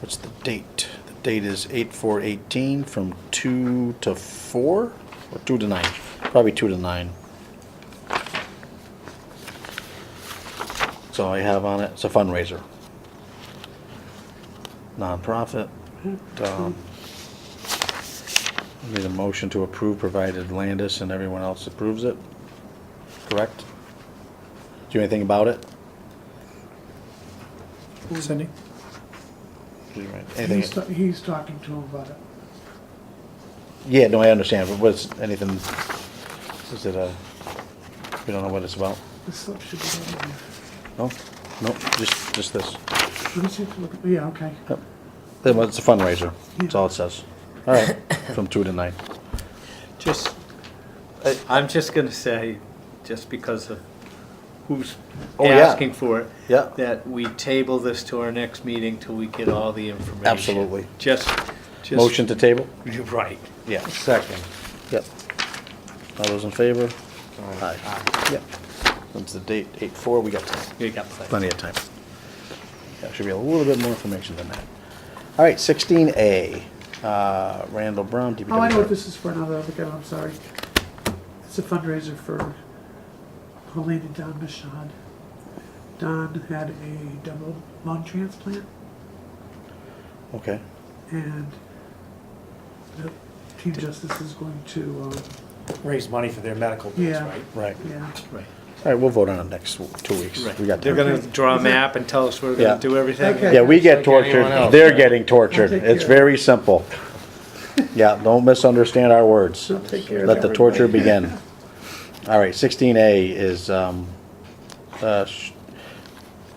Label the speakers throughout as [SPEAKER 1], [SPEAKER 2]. [SPEAKER 1] What's the date? The date is 8/4/18 from 2 to 4 or 2 to 9? Probably 2 to 9. That's all I have on it. It's a fundraiser. Nonprofit. Um, I Need a motion to approve provided Landis and everyone else approves it. Correct? Do you know anything about it?
[SPEAKER 2] Cindy?
[SPEAKER 1] Do you know anything-
[SPEAKER 2] He's, ta- he's talking to him about it.
[SPEAKER 1] Yeah, no, I understand, but what's, anything, is it a, we don't know what it's about?
[SPEAKER 2] The slip should be down
[SPEAKER 1] No? No, just, just this.
[SPEAKER 2] there. Let me see if you look, at- oh, yeah, okay.
[SPEAKER 1] Yep. It was- It's a fundraiser, that's all it says. All right, from two to nine.
[SPEAKER 3] Just, I- I'm just going to say, just because of who's
[SPEAKER 1] Oh, yeah.
[SPEAKER 3] asking for it.
[SPEAKER 1] Yeah.
[SPEAKER 3] That we table this to our next meeting till we get all the information.
[SPEAKER 1] Absolutely.
[SPEAKER 3] Just, just.
[SPEAKER 1] Motion to table?
[SPEAKER 3] You're right.
[SPEAKER 1] Yeah. Second. Yep. All those in favor? Aye. Yep. That's the date, eight four, we got time.
[SPEAKER 3] You got plenty.
[SPEAKER 1] Plenty of time. Yeah, should be a little bit more information than that. All right, sixteen A, uh, Randall Brown, DPW.
[SPEAKER 2] Oh, I know what this is for now, though, again, I'm sorry. It's a fundraiser for poor lady Don Michaud. Don had a double lung transplant,
[SPEAKER 1] Okay.
[SPEAKER 2] and the Team Justice is going to, um,
[SPEAKER 4] raise money for their medical bills,
[SPEAKER 2] Yeah.
[SPEAKER 4] right?
[SPEAKER 1] Right.
[SPEAKER 2] yeah,
[SPEAKER 3] Right.
[SPEAKER 1] All right, we'll vote on it next w- two weeks.
[SPEAKER 3] Right.
[SPEAKER 1] We got
[SPEAKER 3] They're
[SPEAKER 1] time.
[SPEAKER 3] going to draw a map and tell us we're going
[SPEAKER 1] Yeah.
[SPEAKER 3] to do everything.
[SPEAKER 2] Okay.
[SPEAKER 1] Yeah, we get
[SPEAKER 4] Just like anyone
[SPEAKER 1] tortured,
[SPEAKER 4] else.
[SPEAKER 1] they're getting tortured.
[SPEAKER 2] I'll take
[SPEAKER 1] It's
[SPEAKER 2] care.
[SPEAKER 1] very simple. Yeah, don't misunderstand our words.
[SPEAKER 2] they'll take care of
[SPEAKER 1] Let the
[SPEAKER 2] everything.
[SPEAKER 1] torture begin. All right, sixteen A is, um, uh, Sh-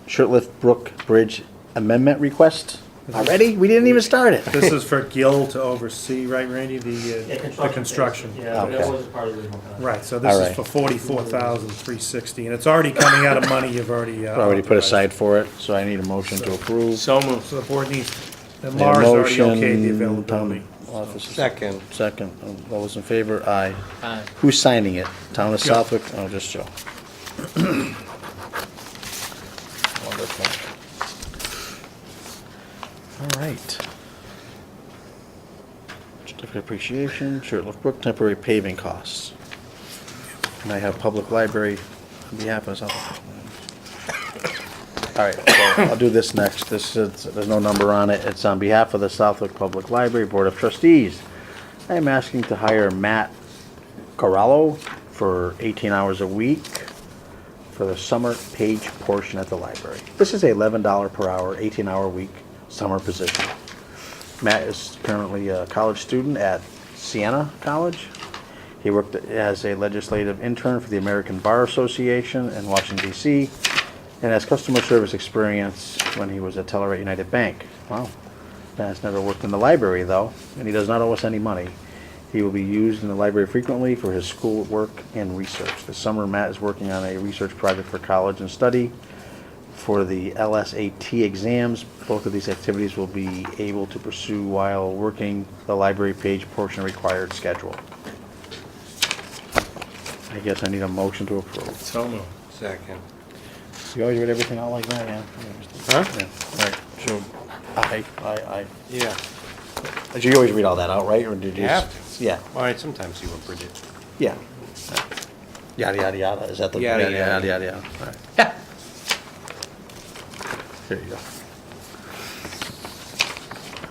[SPEAKER 1] Shirtlift Brook Bridge Amendment Request. Already? We didn't even start it.
[SPEAKER 5] This is for Gil to oversee, right, Randy, the,
[SPEAKER 4] Yeah,
[SPEAKER 5] uh, the construction?
[SPEAKER 4] Yeah, but
[SPEAKER 1] Okay.
[SPEAKER 4] that was part of the original contract.
[SPEAKER 5] Right, so
[SPEAKER 1] All
[SPEAKER 5] this
[SPEAKER 1] right.
[SPEAKER 5] is for forty-four thousand, three sixty, and it's already coming out of money you've already. uh,
[SPEAKER 1] Already put
[SPEAKER 5] authorized.
[SPEAKER 1] aside for it, so I need a motion to approve.
[SPEAKER 3] So moved.
[SPEAKER 5] So the board needs, and
[SPEAKER 1] Need a
[SPEAKER 5] Laura's already
[SPEAKER 1] motion, um,
[SPEAKER 5] okayed the
[SPEAKER 1] town
[SPEAKER 5] availability.
[SPEAKER 1] office is-
[SPEAKER 4] Second.
[SPEAKER 1] Second, Um, all those in favor, aye.
[SPEAKER 3] Aye.
[SPEAKER 1] Who's signing it? Town of
[SPEAKER 5] Joe.
[SPEAKER 1] Southwick? Oh, just Joe. Wonderful. All right. Certificate of appreciation, Shirtlift Brook, temporary paving costs. And I have public library on behalf of Southwick. All right, so I'll do this next. This is, there's no number on it. It's on behalf of the Southwick Public Library Board of Trustees. I am asking to hire Matt Corallo for 18 hours a week for the summer page portion at the library. This is a $11 per hour, 18-hour week summer position. Matt is currently a college student at Siena College. He worked as a legislative intern for the American Bar Association in Washington DC and has customer service experience when he was at Telluride United Bank. Wow. Matt's never worked in the library though, and he does not owe us any money. He will be used in the library frequently for his school work and research. This summer, Matt is working on a research project for college and study for the LSAT exams. Both of these activities will be able to pursue while working the library page portion required schedule. I guess I need a motion to approve.
[SPEAKER 3] So moved.
[SPEAKER 4] Second.
[SPEAKER 1] You always read everything out like that, yeah?
[SPEAKER 4] Huh?
[SPEAKER 1] Yeah, Right, so, I, I,
[SPEAKER 4] Yeah,
[SPEAKER 1] I, do you always read all that out, right, or did you?
[SPEAKER 4] You
[SPEAKER 1] just-
[SPEAKER 4] have
[SPEAKER 1] Yeah,
[SPEAKER 4] all right, sometimes you will predict.
[SPEAKER 1] yeah. Yada, yada, yada, is that the?
[SPEAKER 4] Yada,
[SPEAKER 1] Yada,
[SPEAKER 4] yada.
[SPEAKER 1] yada, yada, all right. There you go.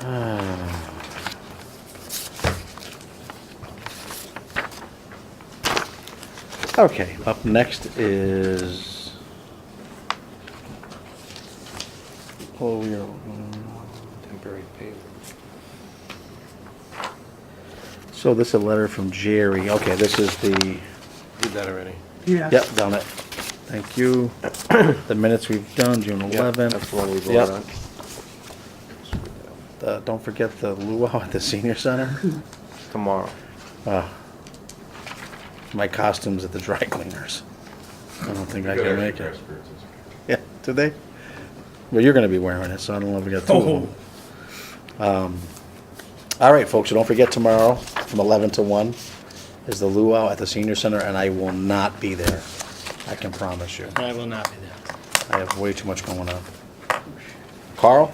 [SPEAKER 1] Ah. Okay, up next is. Oh, we are.
[SPEAKER 4] Temporary payment.
[SPEAKER 1] So this is a letter from Jerry. Okay, this is the,
[SPEAKER 4] Did that already.
[SPEAKER 2] yeah.
[SPEAKER 1] yep, done it. Thank you. The minutes we've done, June
[SPEAKER 4] Yeah,
[SPEAKER 1] 11th.
[SPEAKER 4] That's the one we
[SPEAKER 1] Yep.
[SPEAKER 4] voted on.
[SPEAKER 1] Uh, Don't forget the luau at the senior center.
[SPEAKER 4] Tomorrow.
[SPEAKER 1] My costume's at the dry cleaners. I don't think I can make it. Yeah, do they? Well, you're gonna be wearing it, so I don't know if we got two of them. Um, all right, folks, so don't forget tomorrow from eleven to one is the luau at the senior center, and I will not be there. I can promise you.
[SPEAKER 3] I will not be there.
[SPEAKER 1] I have way too much going on. Carl?